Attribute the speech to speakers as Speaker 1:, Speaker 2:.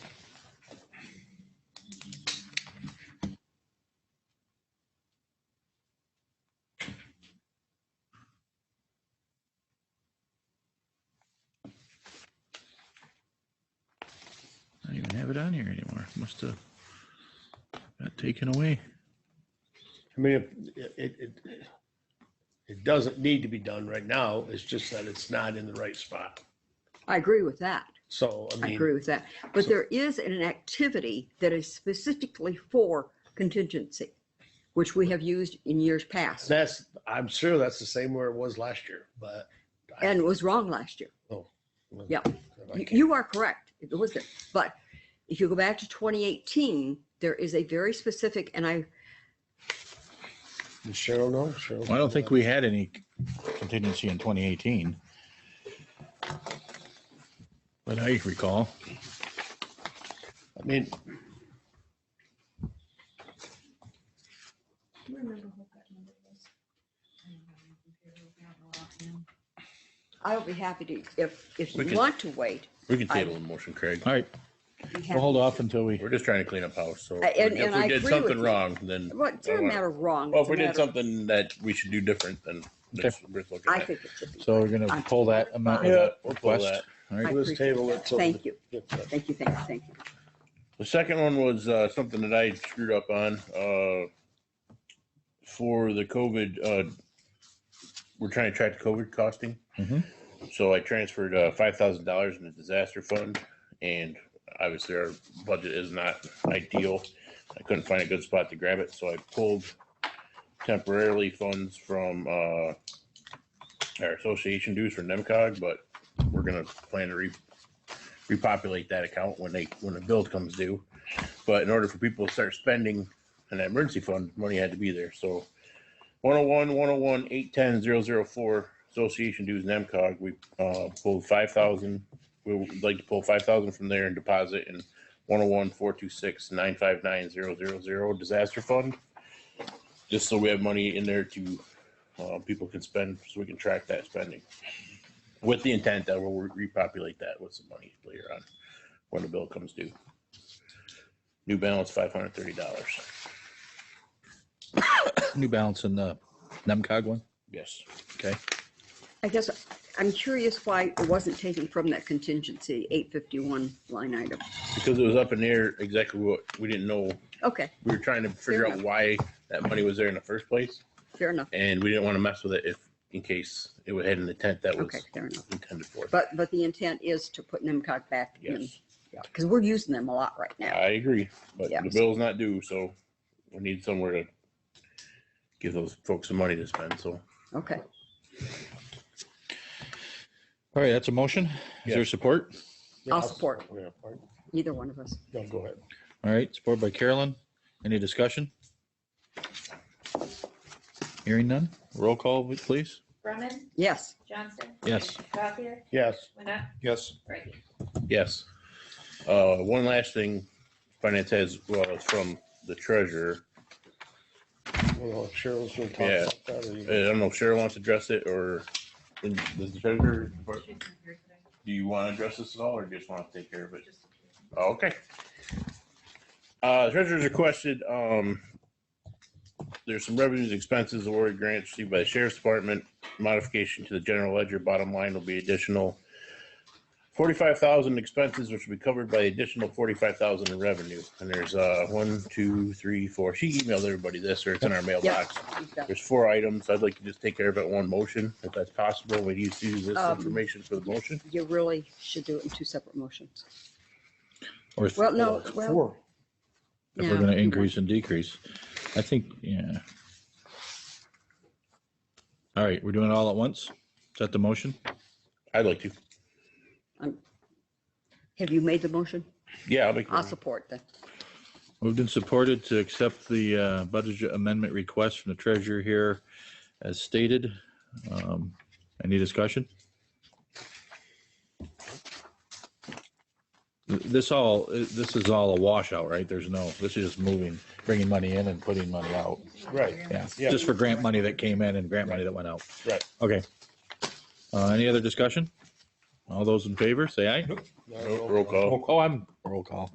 Speaker 1: have it on here anymore. Must have got taken away.
Speaker 2: I mean, if- it, it, it doesn't need to be done right now. It's just that it's not in the right spot.
Speaker 3: I agree with that.
Speaker 2: So, I
Speaker 3: I
Speaker 2: mean.
Speaker 3: agree with that. But
Speaker 2: so-
Speaker 3: there is an activity that is specifically for contingency, which we have used in years past
Speaker 2: That's, I'm sure that's the same where it was last year, but. I-
Speaker 3: and was wrong last year. yeah.
Speaker 2: I
Speaker 3: You-
Speaker 2: can't-
Speaker 3: You are correct. It was there. But if you go back to 2018, there is a very specific, and I,
Speaker 2: Does Cheryl know? Cheryl.
Speaker 1: Well, I don't think we had any contingency in 2018. But I recall.
Speaker 2: I mean,
Speaker 4: Do you remember what that number was?
Speaker 3: I'll be happy to, if, if
Speaker 5: We
Speaker 3: you
Speaker 5: can-
Speaker 3: want to wait.
Speaker 5: We can table the motion, Craig.
Speaker 1: All right,
Speaker 3: we have-
Speaker 1: we'll hold off until we,
Speaker 5: We're just trying to clean up house, so
Speaker 3: I- and-
Speaker 5: if
Speaker 3: and I
Speaker 5: we did
Speaker 3: agree
Speaker 5: something
Speaker 3: with you.
Speaker 5: wrong, then.
Speaker 3: Well, it doesn't matter wrong.
Speaker 5: Well,
Speaker 3: it's
Speaker 5: if
Speaker 3: a
Speaker 5: we did
Speaker 3: matter of-
Speaker 5: something that we should do different, then that's worth looking
Speaker 3: I
Speaker 5: at.
Speaker 3: think it should be.
Speaker 1: so we're gonna pull that amount of
Speaker 5: Yeah,
Speaker 1: that
Speaker 5: we'll pull
Speaker 1: request.
Speaker 5: that.
Speaker 1: All
Speaker 3: I
Speaker 1: right,
Speaker 2: let's
Speaker 3: appreciate
Speaker 2: table
Speaker 3: that.
Speaker 2: it till
Speaker 3: Thank you,
Speaker 2: get that.
Speaker 3: thank you, thank you, thank you.
Speaker 5: The second one was uh, something that I screwed up on uh, for the COVID. Uh, we're trying to track the COVID costing.
Speaker 1: Mhm.
Speaker 5: So I transferred uh, five thousand dollars in the disaster fund, and obviously our budget is not ideal. I couldn't find a good spot to grab it, so I pulled temporarily funds from uh, our association dues for NEMCOG, but we're gonna plan to re- repopulate that account when they when the bill comes due. But in order for people to start spending an emergency fund, money had to be there. So 101, 101, 810, 004, association dues and MCOG, we uh, pulled 5,000. We would like to pull 5,000 from there and deposit in 101, 426, 959, 000 disaster fund. Just so we have money in there to, uh, people can spend, so we can track that spending. With the intent that we'll repopulate that with some money later on when the bill comes due. New balance, $530.
Speaker 1: New Balance and the NEMCOG one.
Speaker 5: Yes.
Speaker 1: Okay,
Speaker 3: I guess I'm curious why it wasn't taken from that contingency, 851 line item.
Speaker 5: Because it was up in the air exactly what, we didn't know
Speaker 3: Okay,
Speaker 5: we were trying to figure out
Speaker 3: enough.
Speaker 5: why that money was there in the first place,
Speaker 3: fair enough.
Speaker 5: and we didn't want to mess with it if, in case it had an intent that was
Speaker 3: Okay, fair enough.
Speaker 5: intended for.
Speaker 3: But, but the intent is to put NIMCOG back in,
Speaker 5: Yes,
Speaker 3: because we're using them a lot right now.
Speaker 5: I agree, but
Speaker 3: Yeah.
Speaker 5: the bill's not due, so we need somewhere to give those folks some money to spend, so.
Speaker 3: Okay,
Speaker 1: all right, that's a motion. Is there
Speaker 5: Yeah.
Speaker 1: support?
Speaker 2: Yeah,
Speaker 3: I'll support.
Speaker 2: Oh, Yeah, pardon.
Speaker 3: neither one of us.
Speaker 2: No, go ahead.
Speaker 1: All right, support by Carolyn. Any discussion? Hearing none. Roll call, please.
Speaker 4: Brumman,
Speaker 3: Yes,
Speaker 4: Johnson.
Speaker 1: Yes.
Speaker 4: Gothier,
Speaker 2: Yes,
Speaker 4: Winna,
Speaker 6: Yes,
Speaker 4: Brady.
Speaker 5: Yes. Uh, one last thing, finance has, well, it's from the treasurer.
Speaker 2: well, Cheryl's gonna talk
Speaker 5: Yeah.
Speaker 2: about that. or
Speaker 5: Uh, I
Speaker 2: you-
Speaker 1: Uh,
Speaker 5: don't know if Cheryl wants to address it, or does the treasurer, do
Speaker 4: She's not here today,
Speaker 5: you want to address this at all, or just want to take care of it?
Speaker 4: just-
Speaker 5: Okay. Uh, treasurer's requested, um, there's some revenues, expenses, award grants received by the sheriff's department. Modification to the general ledger, bottom line will be additional forty-five thousand expenses, which will be covered by additional forty-five thousand in revenue. And there's, uh, one, two, three, four. She emailed everybody this, or it's in our mailbox.
Speaker 3: you've got-
Speaker 5: There's four items. I'd like to just take care of it in one motion, if that's possible. We need to use this
Speaker 3: Um,
Speaker 5: information for the motion.
Speaker 3: you really should do it in two separate motions.
Speaker 1: Or
Speaker 3: Well, no,
Speaker 2: Well,
Speaker 3: well.
Speaker 2: four.
Speaker 1: if we're
Speaker 3: no,
Speaker 1: gonna
Speaker 3: you
Speaker 1: increase and decrease. I think, yeah. All right, we're doing it all at once? Is that the motion?
Speaker 5: I'd like to.
Speaker 3: won't. Have you made the motion?
Speaker 5: Yeah, I'll make. the
Speaker 3: I'll
Speaker 5: motion.
Speaker 3: support that.
Speaker 1: Moved and supported to accept the uh, budget amendment request from the treasurer here as stated. Um, Any discussion? Th- This all, this is all a washout, right? There's no, this is just moving, bringing money in and putting money out.
Speaker 2: Right,
Speaker 1: Yeah,
Speaker 2: Yeah.
Speaker 1: just for grant money that came in and grant money that went out.
Speaker 5: Right.
Speaker 1: Okay. Uh, any other discussion? All those in favor, say aye.
Speaker 2: No,
Speaker 5: Roll
Speaker 2: no.
Speaker 5: roll call.
Speaker 1: Oh, I'm, roll call.